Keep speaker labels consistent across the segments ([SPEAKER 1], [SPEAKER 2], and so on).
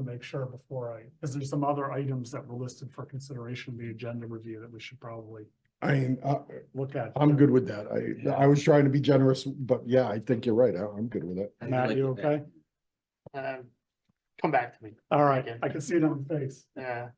[SPEAKER 1] make sure before I, because there's some other items that were listed for consideration, in the agenda review that we should probably
[SPEAKER 2] I mean, uh,
[SPEAKER 1] look at.
[SPEAKER 2] I'm good with that. I, I was trying to be generous, but yeah, I think you're right. I- I'm good with it.
[SPEAKER 3] I do
[SPEAKER 1] Matt,
[SPEAKER 3] like
[SPEAKER 1] you
[SPEAKER 3] it there.
[SPEAKER 1] okay?
[SPEAKER 4] Um, come back to me, Uh,
[SPEAKER 1] All right, I can see it on your face.
[SPEAKER 4] yeah.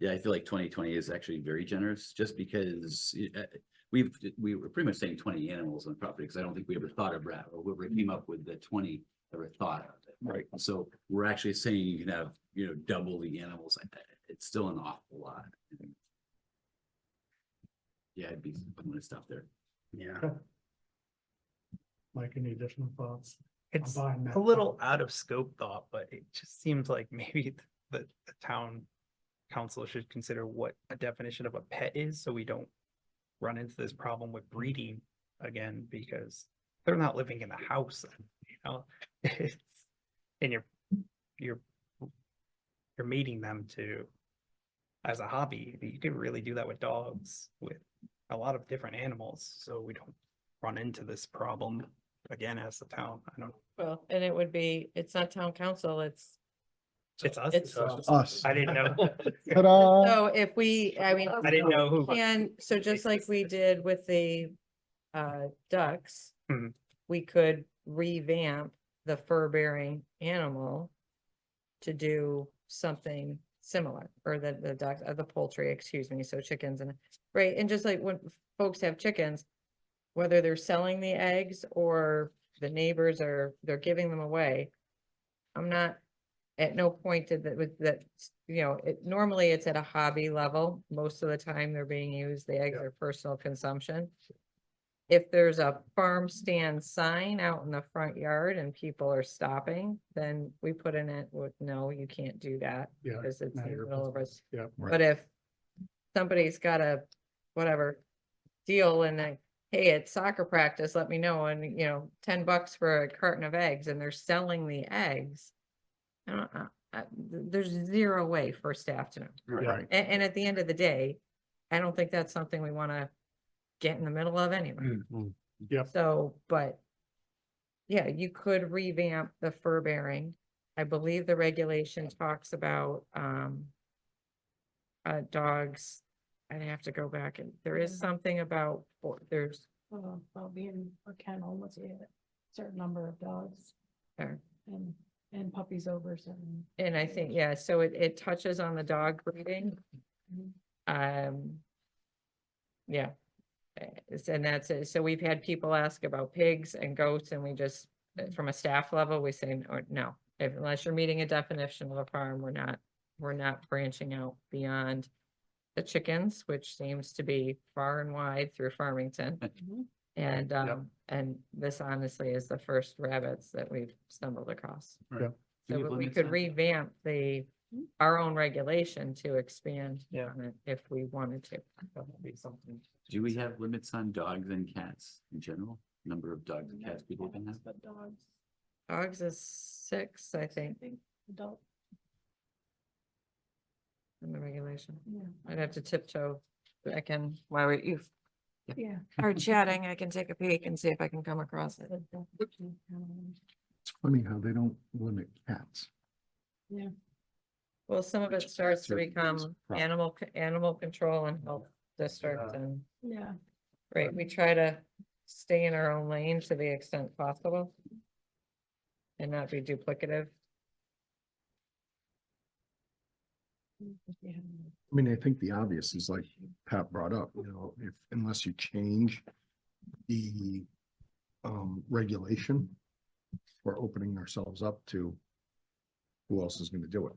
[SPEAKER 3] Yeah, I feel like twenty twenty is actually very generous, just because y- uh, we've, we were pretty much saying twenty animals on property, because I don't think we ever thought of rat, or whoever came up with the twenty ever thought of it.
[SPEAKER 2] Right.
[SPEAKER 3] So we're actually saying you can have, you know, double the animals. I- I- It's still an awful lot. Yeah, I'd be, I'm gonna stop there.
[SPEAKER 5] Yeah,
[SPEAKER 1] Mike, any additional thoughts? I'm
[SPEAKER 6] It's
[SPEAKER 1] buying that.
[SPEAKER 6] a little out of scope thought, but it just seems like maybe th- the, the town council should consider what a definition of a pet is, so we don't run into this problem with breeding again, because they're not living in the house, you know? It's, and you're, you're, you're mating them to, as a hobby, you could really do that with dogs, with a lot of different animals, so we don't run into this problem again as the town, I don't know.
[SPEAKER 7] Well, and it would be, it's not town council, it's,
[SPEAKER 6] It's us.
[SPEAKER 7] It's
[SPEAKER 2] Us.
[SPEAKER 6] I didn't know.
[SPEAKER 2] Ta-da.
[SPEAKER 7] so if we, I mean,
[SPEAKER 6] Uh, I didn't know who.
[SPEAKER 7] and so just like we did with the uh ducks.
[SPEAKER 6] Mhm.
[SPEAKER 7] We could revamp the fur bearing animal to do something similar, or the the duck, uh, the poultry, excuse me, so chickens and, right, and just like when folks have chickens. Whether they're selling the eggs or the neighbors are, they're giving them away. I'm not, at no point did that with that, s- you know, it normally it's at a hobby level. Most of the time they're being used, the eggs
[SPEAKER 1] Yeah.
[SPEAKER 7] are personal consumption. If there's a farm stand sign out in the front yard and people are stopping, then we put in it with, no, you can't do that.
[SPEAKER 1] Yeah.
[SPEAKER 7] Because it's
[SPEAKER 1] now
[SPEAKER 7] in the
[SPEAKER 1] your
[SPEAKER 7] middle of us.
[SPEAKER 1] business. Yeah.
[SPEAKER 2] Right.
[SPEAKER 7] But if somebody's got a, whatever, deal and like, hey, it's soccer practice, let me know, and you know, ten bucks for a carton of eggs, and they're selling the eggs. I don't, I, I- th- there's zero way for staff to know,
[SPEAKER 1] Yeah.
[SPEAKER 7] A- and, at the end of the day, I don't think that's something we wanna get in the middle of anyway.
[SPEAKER 5] Mm-hmm.
[SPEAKER 1] Yep.
[SPEAKER 7] So, but. Yeah, you could revamp the fur bearing. I believe the regulation talks about, um. Uh, dogs, I'd have to go back and there is
[SPEAKER 8] Yeah.
[SPEAKER 7] something about, or- there's,
[SPEAKER 8] Well, well, being a kennel, let's say a certain number of dogs
[SPEAKER 7] there.
[SPEAKER 8] and, and puppies over certain.
[SPEAKER 7] And I think, yeah, so it, it touches on the dog breeding.
[SPEAKER 8] Mhm.
[SPEAKER 7] Um. Yeah. Uh, it's- And that's it. So we've had people ask about pigs and goats and we just, uh, from a staff level, we say, or no. If unless you're meeting a definition of a farm, we're not, we're not branching out beyond. The chickens, which seems to be far and wide through Farmington.
[SPEAKER 8] Mhm.
[SPEAKER 7] And,
[SPEAKER 1] Yep.
[SPEAKER 7] um, and this honestly is the first rabbits that we've stumbled across.
[SPEAKER 1] Yep.
[SPEAKER 7] So
[SPEAKER 3] Can you
[SPEAKER 7] we- we
[SPEAKER 3] blend it
[SPEAKER 7] could
[SPEAKER 3] some?
[SPEAKER 7] revamp the,
[SPEAKER 8] Mhm.
[SPEAKER 7] our own regulation to expand.
[SPEAKER 6] Yeah.
[SPEAKER 7] on it If we wanted to.
[SPEAKER 3] Do we have limits on dogs and cats in general? Number of dogs and cats people can have?
[SPEAKER 8] Mm-hmm. But dogs.
[SPEAKER 7] Dogs is six, I think,
[SPEAKER 8] Adult,
[SPEAKER 7] in the regulation.
[SPEAKER 8] yeah.
[SPEAKER 7] I'd have to tiptoe back in while we- you
[SPEAKER 8] Yeah.
[SPEAKER 7] are chatting. I can take a peek and see if I can come across it.
[SPEAKER 8] but that's- um,
[SPEAKER 2] It's funny how they don't limit cats.
[SPEAKER 7] Well, some of it
[SPEAKER 3] Which
[SPEAKER 7] starts to
[SPEAKER 3] certain things
[SPEAKER 7] become
[SPEAKER 3] prop-
[SPEAKER 7] animal, c- animal control and health district
[SPEAKER 1] Yeah.
[SPEAKER 7] and,
[SPEAKER 8] Yeah,
[SPEAKER 7] right, we try to stay in our own lane to the extent possible. And not be duplicative.
[SPEAKER 8] yeah.
[SPEAKER 2] I mean, I think the obvious is like Pat brought up, you know, if, unless you change the um, regulation, we're opening ourselves up to who else is gonna do it?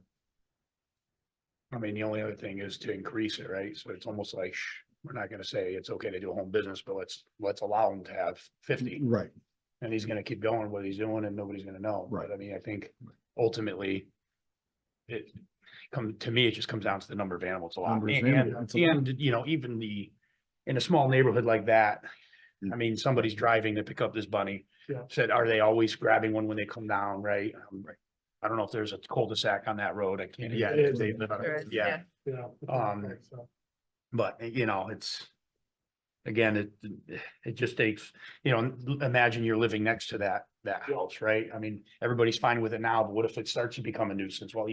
[SPEAKER 5] I mean, the only other thing is to increase it, right? So it's almost like, shh, we're not gonna say it's okay to do home business, but let's, let's allow him to have fifty.
[SPEAKER 2] Right,
[SPEAKER 5] And he's gonna keep going what he's doing and nobody's gonna know.
[SPEAKER 2] Mm-hmm. Right.
[SPEAKER 5] But I mean, I think ultimately it come, to me, it just comes down to the number of animals a lot.
[SPEAKER 2] Number of
[SPEAKER 5] And,
[SPEAKER 2] animals.
[SPEAKER 5] and, and, you know, even the, in a small neighborhood like that, I mean, somebody's driving to pick up this bunny.
[SPEAKER 1] Hmm. Yeah.
[SPEAKER 5] Said, are they always grabbing one when they come down, right? Um, right. I don't know if there's a cul-de-sac on that road. I can't. Yeah.
[SPEAKER 1] It is.
[SPEAKER 5] they live on a-
[SPEAKER 7] There is,
[SPEAKER 5] Yeah.
[SPEAKER 1] Yeah.
[SPEAKER 5] Um,
[SPEAKER 1] So,
[SPEAKER 5] But, you know, it's, again, it, it just takes, you know, imagine you're living next to that, that house, right? I mean, everybody's fine with it now, but what if it starts to become a nuisance? Well,